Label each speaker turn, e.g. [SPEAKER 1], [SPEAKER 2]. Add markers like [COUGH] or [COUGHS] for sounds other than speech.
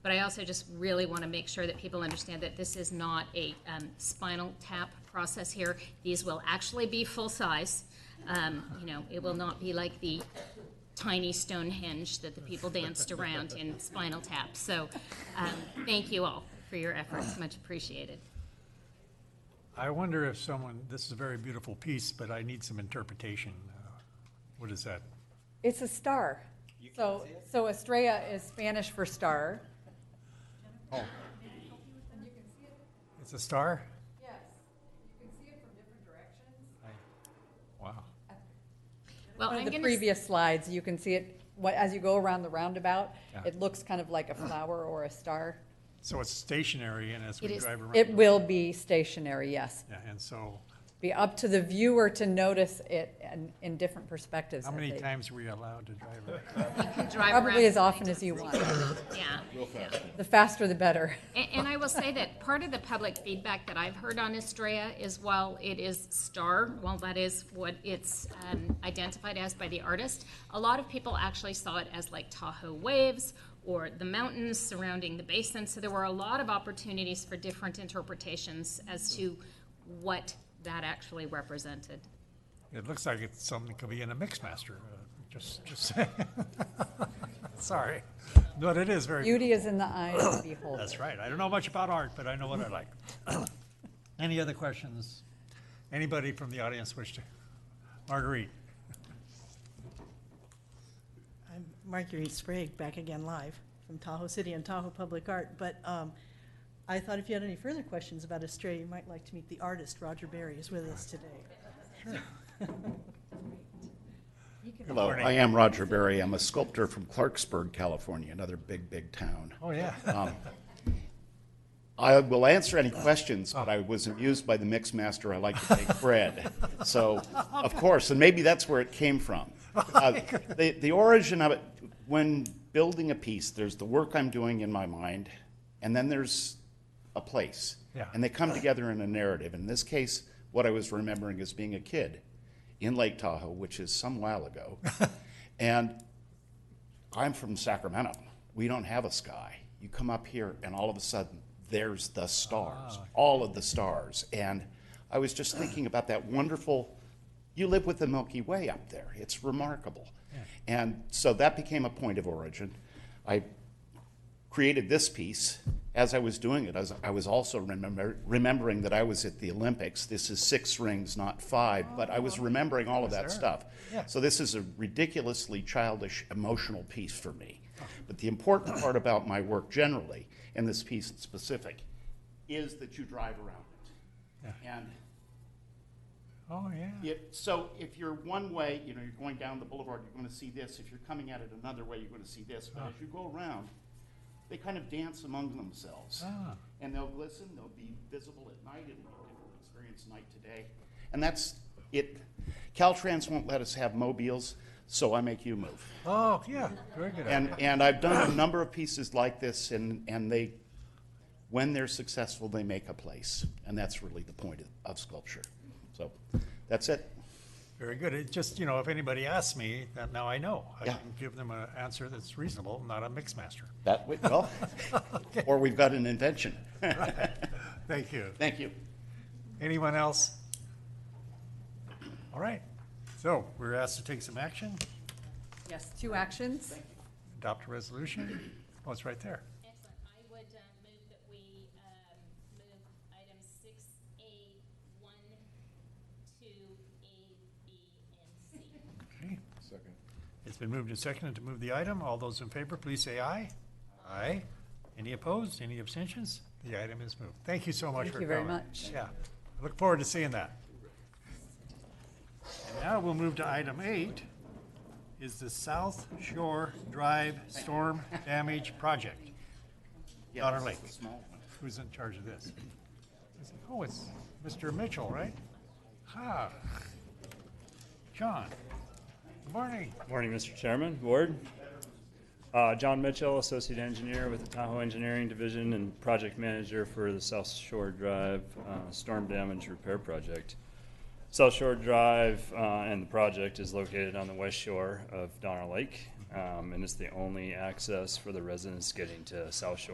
[SPEAKER 1] But I also just really want to make sure that people understand that this is not a um, spinal tap process here. These will actually be full-size. Um, You know, it will not be like the tiny Stonehenge that the people danced around in Spinal Tap. So um, thank you all for your efforts, much appreciated.
[SPEAKER 2] I wonder if someone, this is a very beautiful piece, but I need some interpretation. Uh, What is that?
[SPEAKER 3] It's a star. So, so Estrella is Spanish for star.
[SPEAKER 2] It's a star?
[SPEAKER 3] Yes, you can see it from different directions.
[SPEAKER 2] Wow.
[SPEAKER 1] Well,
[SPEAKER 3] One
[SPEAKER 1] Oh, I'm
[SPEAKER 3] of the
[SPEAKER 1] going to,
[SPEAKER 3] previous slides, you can see it, what, as you go around the roundabout,
[SPEAKER 2] Yeah.
[SPEAKER 3] it looks kind of
[SPEAKER 2] [CLEARS THROAT]
[SPEAKER 3] like a flower or a star.
[SPEAKER 2] So it's stationary and as we
[SPEAKER 1] It is-
[SPEAKER 2] drive around.
[SPEAKER 3] It will be stationary, yes.
[SPEAKER 2] Yeah, And so,
[SPEAKER 3] Be up to the viewer to notice it in, in different perspectives.
[SPEAKER 2] how
[SPEAKER 3] as
[SPEAKER 2] many
[SPEAKER 3] they-
[SPEAKER 2] times were you allowed to drive around?
[SPEAKER 1] drive around.
[SPEAKER 3] [LAUGHS] Probably as often as you want.
[SPEAKER 1] Yeah.
[SPEAKER 3] The faster the better.
[SPEAKER 1] And, and I will say that part of the public feedback that I've heard on Estrella is while it is star, while that is what it's um, identified as by the artist, a lot of people actually saw it as like Tahoe waves or the mountains surrounding the basin. So there were a lot of opportunities for different interpretations as to what that actually represented.
[SPEAKER 2] It looks like it's something that could be in a mix master. uh, Just, just saying. [LAUGHS] Sorry. But it is very,
[SPEAKER 3] Beauty is in the eye of
[SPEAKER 2] [COUGHS]
[SPEAKER 3] the beholder.
[SPEAKER 2] that's right. I don't know much about art, but I know what I like. [COUGHS] Any other questions? Anybody from the audience wish to? Marguerite?
[SPEAKER 4] I'm Marguerite Sprague, back again live from Tahoe City and Tahoe Public Art. But um, I thought if you had any further questions about Estrella, you might like to meet the artist. Roger Berry is with us today.
[SPEAKER 5] Hello,
[SPEAKER 2] Morning.
[SPEAKER 5] I am Roger Berry. I'm a sculptor from Clarksburg, California, another big, big town.
[SPEAKER 2] Oh, yeah.
[SPEAKER 5] I will answer any questions, but I was amused by the mix master. I like
[SPEAKER 2] [LAUGHS]
[SPEAKER 5] to bake bread. So, of course, and maybe that's where it came from.
[SPEAKER 2] [LAUGHS]
[SPEAKER 5] Uh, the, the origin of it, when building a piece, there's the work I'm doing in my mind, and then there's a place.
[SPEAKER 2] Yeah.
[SPEAKER 5] And they come together in a narrative. In this case, what I was remembering is being a kid in Lake Tahoe, which is some
[SPEAKER 2] [LAUGHS]
[SPEAKER 5] while ago. and I'm from Sacramento. We don't have a sky. You come up here, and all of a sudden, there's the stars, all of the stars. And I was just thinking about that wonderful, you live with the Milky Way up there. It's remarkable. And so that became a point of origin. I created this piece. As I was doing it, I was, I was also remember, remembering that I was at the Olympics. This is six rings, not five, but I was remembering all of that stuff.
[SPEAKER 2] Yeah.
[SPEAKER 5] So this is a ridiculously childish, emotional piece for me. But the important part about my work generally, and this piece in specific, is that you drive around it. And
[SPEAKER 2] Oh, yeah.
[SPEAKER 5] it, so if you're one way, you know, you're going down the boulevard, you're gonna see this. If you're coming at it another way, you're gonna see this. But as you go around, they kind of dance among themselves.
[SPEAKER 2] Ah.
[SPEAKER 5] And they'll glisten, they'll be visible at night, and we'll experience night today. And that's it. Caltrans won't let us have mobiles, so I make you move.
[SPEAKER 2] Oh, yeah, very good.
[SPEAKER 5] And, and I've done a number of pieces like this, and, and they, when they're successful, they make a place. And that's really the point of, of sculpture. So, that's it.
[SPEAKER 2] Very good. It just, you know, if anybody asks me, that now I know. I
[SPEAKER 5] Yeah.
[SPEAKER 2] can give them an answer that's reasonable, not a mix master.
[SPEAKER 5] That, we- well, or we've got an invention. [LAUGHS]
[SPEAKER 2] Thank you.
[SPEAKER 5] Thank you.
[SPEAKER 2] Anyone else? All right. So we're asked to take some action,
[SPEAKER 3] Yes, two actions.
[SPEAKER 2] adopt a resolution. Oh, it's right there.
[SPEAKER 1] Excellent. I would uh, move that we um, move items six A, one, two, A, B, and C.
[SPEAKER 2] Okay. Second. It's been moved and seconded to move the item. All those in favor, please say aye. Aye. Any opposed? Any abstentions? The item is moved. Thank you so much
[SPEAKER 3] Thank
[SPEAKER 2] for
[SPEAKER 3] you
[SPEAKER 2] coming.
[SPEAKER 3] very much.
[SPEAKER 2] Yeah. I Look forward to seeing that. And now we'll move to item eight, is the South Shore Drive Storm Damage Project.
[SPEAKER 5] Yeah,
[SPEAKER 2] Otter
[SPEAKER 5] this is
[SPEAKER 2] Lake.
[SPEAKER 5] the small one.
[SPEAKER 2] Who's in charge of this? Is it- Oh, it's Mr. Mitchell, right? Ha. John, good morning.
[SPEAKER 6] Morning, Mr. Chairman, Board. Uh, John Mitchell, Associate Engineer with the Tahoe Engineering Division and Project Manager for the South Shore Drive uh, Storm Damage Repair Project. South Shore Drive uh, and the project is located on the west shore of Donner Lake, um, and it's the only access for the residents getting to South Shore.